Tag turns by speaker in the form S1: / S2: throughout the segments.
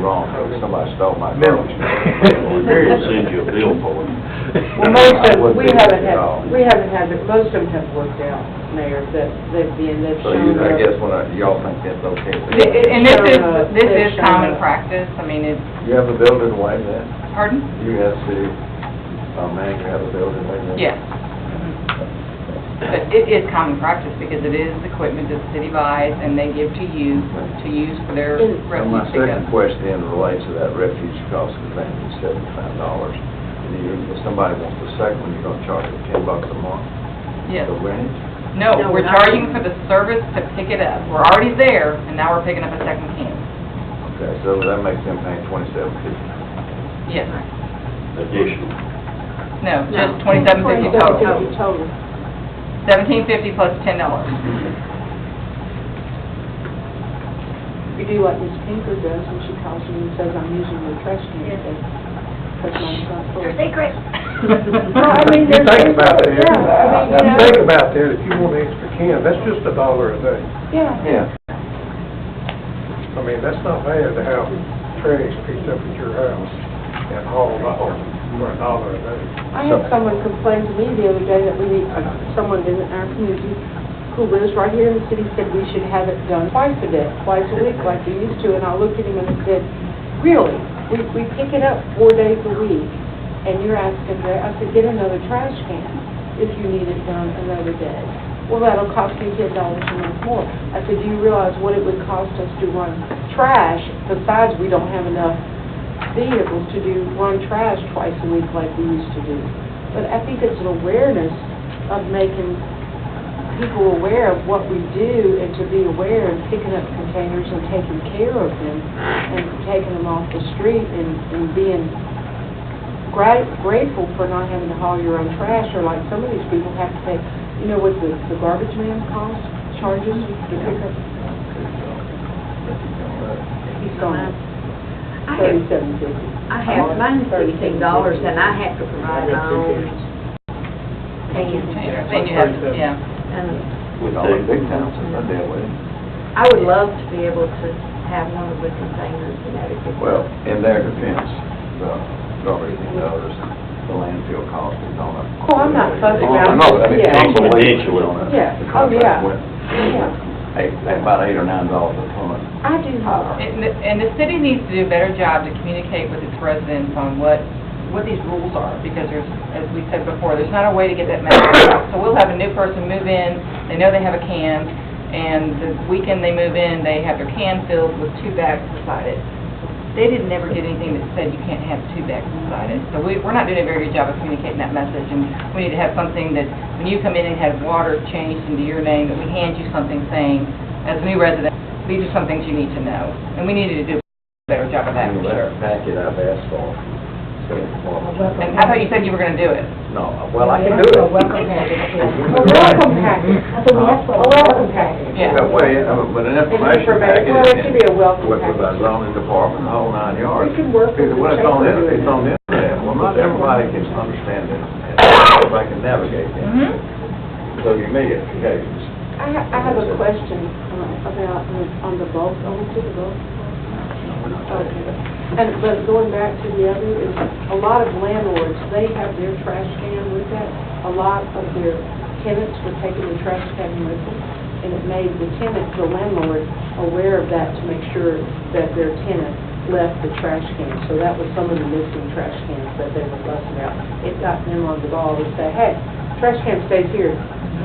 S1: wrong, though, somebody stole my
S2: Milk.
S1: garbage. We very send you a bill for it.
S3: Well, most
S1: I
S3: of,
S1: wouldn't
S3: we
S1: do it
S3: haven't
S1: at
S3: had,
S1: all.
S3: we haven't had, but most of them have worked out, Mayor, that they've been, they've
S1: So you,
S3: shown
S1: I
S3: their.
S1: guess what I, y'all think that's okay with
S4: Th-
S1: you?
S4: And this is,
S3: Sure, uh,
S4: this
S3: they
S4: is
S3: show
S4: common
S3: up.
S4: practice, I mean, it's,
S1: You have a building like that?
S4: pardon?
S1: You have to, uh, man, you have a building like that?
S4: Yes. But it is common practice because it is equipment that the city buys and they give to you to use for their
S3: And-
S1: And my
S4: refuse
S1: second
S4: pickup.
S1: question relates to that refuge cost of thing, it's seventy-five dollars. And you, if somebody wants the second one, you're gonna charge them ten bucks a month
S4: Yes.
S1: to rent it?
S4: No,
S3: No,
S4: we're
S3: not-
S4: charging for the service to pick it up. We're already there and now we're picking up a second can.
S1: Okay, so that makes them pay twenty-seven fifty.
S4: Yes.
S1: Additional.
S4: No,
S3: No.
S4: just twenty-seven fifty total.
S3: $27.50 total.
S4: Seventeen fifty plus ten dollars.
S3: You do what Ms. Pinker does, and she calls you and says, I'm using your trash can today. Because mine's not full.
S5: Secret.
S3: Well, I
S2: You
S3: mean, there's-
S2: think about that.
S3: yeah, I mean, you know-
S2: Think about that, if you want an extra can, that's just a dollar a day.
S3: Yeah.
S1: Yeah.
S2: I mean, that's not bad to have trash picked up at your house and hauled off for a dollar a day.
S3: I had someone complain to me the other day that we need, uh, someone in our community who lives right here in the city said we should have it done twice a day, twice a week like we used to, and I looked at him and said, really? We, we pick it up four days a week, and you're asking, for- I said, get another trash can if you need it done another day. Well, that'll cost you ten dollars a month more. I said, do you realize what it would cost us to run trash? Besides, we don't have enough vehicles to do, run trash twice a week like we used to do. But I think it's an awareness of making people aware of what we do and to be aware of picking up containers and taking care of them and taking them off the street and, and being gra- grateful for not having to haul your own trash or like some of these people have to pay, you know, what the, the garbage man costs, charges to pick up, he's gone,
S5: I have,
S3: thirty-seven fifty.
S5: I have mine sixteen dollars and I have to provide my own
S4: Then
S5: cans.
S4: you have, yeah.
S5: And
S1: With all the big towns that I deal with.
S5: I would love to be able to have one of the containers and have it picked
S1: Well,
S5: up.
S1: in their defense, the garbage and others, the landfill cost is on a.
S3: Oh, I'm not fussing
S1: Oh, I know,
S3: about
S1: but I mean,
S3: it.
S1: it's
S3: Yeah.
S1: unbelievable on a-
S3: Yeah.
S1: the
S3: Oh,
S1: contract
S3: yeah.
S1: went
S3: Yeah.
S1: Eight, about eight or nine dollars a ton.
S3: I do hope.
S4: And the- and the city needs to do a better job to communicate with its residents on what, what these rules are, because there's, as we said before, there's not a way to get that message out. So we'll have a new person move in, they know they have a can, and the weekend they move in, they have their can filled with two bags beside it. They didn't ever get anything that said you can't have two bags beside it. So we, we're not doing a very good job of communicating that message, and we need to have something that, when you come in and have water changed into your name, that we hand you something saying, as a new resident, these are some things you need to know, and we needed to do a better job of that, for sure.
S1: Packet I've asked for. So, well,
S4: And I thought you said you were gonna do it.
S1: No, well, I can do it.
S3: A welcome package. A welcome package.
S4: Yeah.
S1: But wait, uh, but an information packet.
S3: Well, it should be a welcome
S1: With, with our
S3: package.
S1: zoning department, the whole nine yards.
S3: We can work with
S1: Because when
S3: the
S1: it's on,
S3: chamber.
S1: the- it's on the internet, well, not everybody can understand it, and everybody can navigate it.
S3: Mm-hmm.
S1: So you may get occasions.
S3: I ha- I have a question uh, about, uh, on the bulk, on the bulk. Okay. And, but going back to the other, is a lot of landlords, they have their trash can with that. A lot of their tenants were taking the trash can with them, and it made the tenant, the landlord, aware of that to make sure that their tenant left the trash can. So that was some of the missing trash cans that they were busting out. It got them on the ball to say, hey, trash can stays here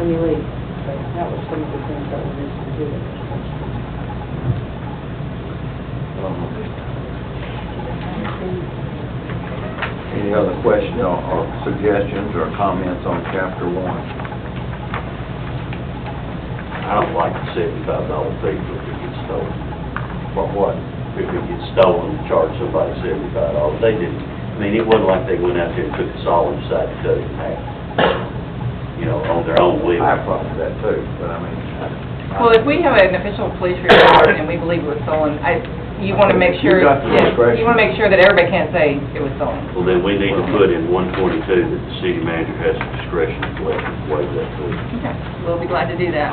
S3: when you leave. But That was some of the things that were missing too.
S1: Um, Any other questions or or suggestions or comments on chapter one?
S6: I don't like the seventy-five dollar fee if it gets stolen.
S1: For what?
S6: If it gets stolen, charge somebody seventy-five dollars. oh, They didn't, I mean, it wasn't like they went out there and took the saw and decided to cut it in half. You know, on their
S1: I
S6: own whim.
S1: have problems with that too, but I mean. I-
S4: Well, if we have an official police report and we believe it was stolen, I, you wanna make sure,
S1: You got the
S4: yeah,
S1: discretion.
S4: you wanna make sure that everybody can't say it was stolen.
S6: Well, then we need to put in one twenty-two that the city manager has the discretion to waive waive that fee.
S4: Okay, we'll be glad to do that.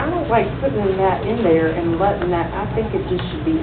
S3: I don't like putting that in there and letting that, I think it just should be